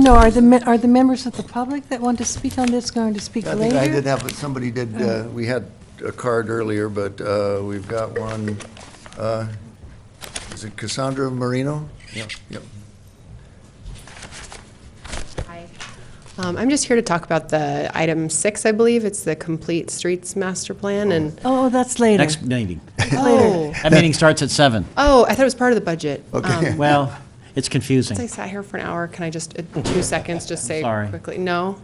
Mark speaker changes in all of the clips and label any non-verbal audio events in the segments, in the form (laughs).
Speaker 1: No, are the, me- are the members of the public that want to speak on this going to speak
Speaker 2: I think I did
Speaker 1: later?
Speaker 2: have, somebody did,
Speaker 3: Oh.
Speaker 2: uh, we had a card earlier, but uh, we've got one. uh, Is it Cassandra Marino? Yeah. Yep.
Speaker 3: Um, I'm just here to talk about the item six, I believe. It's the Complete Streets Master Plan and,
Speaker 1: Oh, that's later.
Speaker 4: Next meeting.
Speaker 3: oh,
Speaker 4: That meeting starts at seven.
Speaker 3: oh, I thought it was part of the budget. Um,
Speaker 4: Well,
Speaker 3: Since
Speaker 4: it's
Speaker 3: I
Speaker 4: confusing.
Speaker 3: sat here for an hour, can I just, uh, two seconds, just say
Speaker 4: Sorry.
Speaker 3: quickly? No?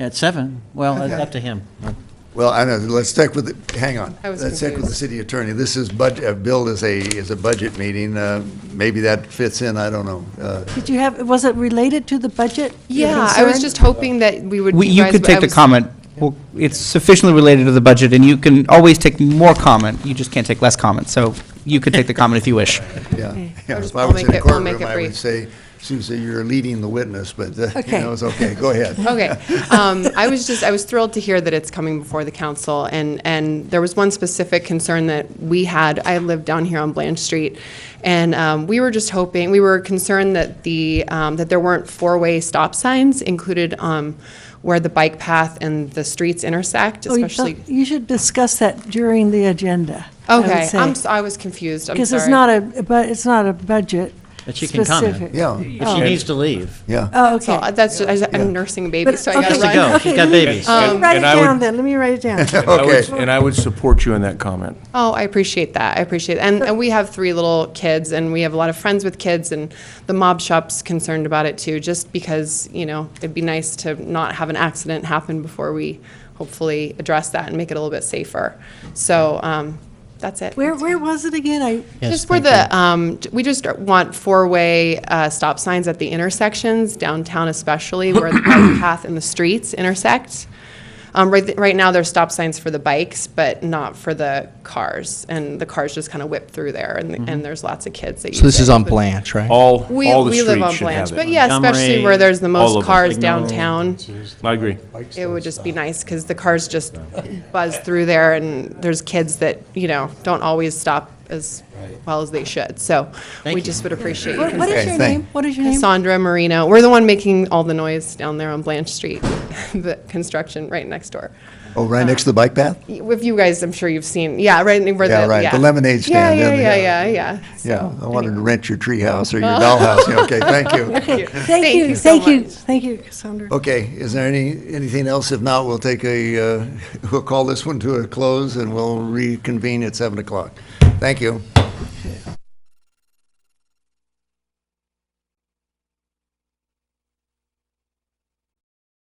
Speaker 4: At seven? Well, it's up to him.
Speaker 2: Well, I know, let's stick with, the hang on.
Speaker 3: I was
Speaker 2: Let's stick with the
Speaker 3: confused.
Speaker 2: city attorney. This is budget, uh, billed as a, is a budget meeting. Uh, Maybe that fits in, I don't know. Uh,
Speaker 1: Did you have, was it related to the budget? your
Speaker 3: Yeah, I was
Speaker 1: concern?
Speaker 3: just hoping that we would.
Speaker 5: We- You
Speaker 3: guys-
Speaker 5: could
Speaker 3: I
Speaker 5: take the
Speaker 3: was-
Speaker 5: comment. Well, It's sufficiently related to the budget, and you can always take more comment. You just can't take less comment, so you could take the comment if you wish.
Speaker 2: Yeah. Yeah,
Speaker 3: I'll just-
Speaker 2: If I
Speaker 3: I'll
Speaker 2: was
Speaker 3: make
Speaker 2: in a
Speaker 3: it- I'll make
Speaker 2: courtroom,
Speaker 3: it
Speaker 2: I would
Speaker 3: brief.
Speaker 2: say, Susan, you're leading the witness, but, uh, you
Speaker 1: Okay.
Speaker 2: know, it's okay. Go ahead.
Speaker 1: (laughs)
Speaker 3: (laughs) Okay. Um, I was just, I was thrilled to hear that it's coming before the council, and, and there was one specific concern that we had. I lived down here on Blanche Street, and um, we were just hoping, we were concerned that the, um, that there weren't four-way stop signs included um, where the bike path and the streets intersect,
Speaker 1: Oh, you
Speaker 3: especially.
Speaker 1: thought- You should discuss that during the agenda. I would
Speaker 3: Okay,
Speaker 1: say.
Speaker 3: I'm, s- I was confused, I'm sorry.
Speaker 1: Because it's not a, but it's not a budget
Speaker 4: But she can comment.
Speaker 1: specific.
Speaker 2: Yeah,
Speaker 4: If she needs to leave,
Speaker 2: yeah.
Speaker 1: Oh,
Speaker 3: So
Speaker 1: okay.
Speaker 3: that's, just- I- I'm nursing a baby,
Speaker 1: But-
Speaker 3: so I
Speaker 1: okay.
Speaker 3: gotta
Speaker 4: has to
Speaker 3: run.
Speaker 4: go. She's got babies.
Speaker 6: And-
Speaker 1: Write it
Speaker 6: and I would-
Speaker 1: down then, let me write it down.
Speaker 4: (laughs)
Speaker 6: I would-
Speaker 2: Okay.
Speaker 6: And I would support you in that comment.
Speaker 3: Oh, I appreciate that. I appreciate it. And, and we have three little kids, and we have a lot of friends with kids, and the mob shop's concerned about it too, just because, you know, it'd be nice to not have an accident happen before we hopefully address that and make it a little bit safer. So um, that's it.
Speaker 1: Where, where was it again? I,
Speaker 4: Yes,
Speaker 3: Just where
Speaker 4: thank
Speaker 3: the, um, j- we just want four-way uh, stop signs at the intersections, downtown especially, where the bike
Speaker 5: (coughs)
Speaker 3: path and the streets intersect. Um, Right, th- right now, there's stop signs for the bikes, but not for the cars, and the cars just kind of whip through there, and and there's lots of kids that use it.
Speaker 5: Mm-hmm. So this is on Blanche, right?
Speaker 6: All,
Speaker 3: We
Speaker 6: all the
Speaker 3: we live
Speaker 6: streets
Speaker 3: on
Speaker 6: should have
Speaker 3: Blanche,
Speaker 6: it.
Speaker 3: But yeah, especially
Speaker 4: Montgomery,
Speaker 3: where there's the
Speaker 6: all
Speaker 3: most
Speaker 6: of them.
Speaker 3: cars downtown,
Speaker 6: I agree.
Speaker 3: it would just be nice, because the cars just buzz through there, and there's kids that, you know, don't always stop as well as they should, so we
Speaker 4: you.
Speaker 3: just would appreciate you
Speaker 1: what what is
Speaker 2: Okay,
Speaker 1: your
Speaker 2: thank-
Speaker 1: name? What is your name?
Speaker 3: Cassandra Marino. We're the one making all the noise down there on Blanche Street, (laughs) the construction right next door.
Speaker 2: Oh, right next to the bike path?
Speaker 3: With you guys, I'm sure you've seen, yeah, right where the.
Speaker 2: Yeah, right, the lemonade stand,
Speaker 3: Yeah,
Speaker 2: yeah,
Speaker 3: yeah,
Speaker 2: yeah.
Speaker 3: yeah, yeah, yeah.
Speaker 2: Yeah,
Speaker 3: So,
Speaker 2: I wanted to
Speaker 3: anyway.
Speaker 2: rent your treehouse or
Speaker 3: Oh.
Speaker 2: your dollhouse. Yeah,
Speaker 3: (laughs)
Speaker 2: Okay, thank you.
Speaker 1: Okay, thank
Speaker 3: Thank
Speaker 1: you,
Speaker 3: you so
Speaker 1: thank you,
Speaker 3: much.
Speaker 1: thank you, Cassandra.
Speaker 2: Okay, is there any, anything else? If not, we'll take (laughs) a, uh, we'll call this one to a close and we'll reconvene at 7 o'clock. Thank you.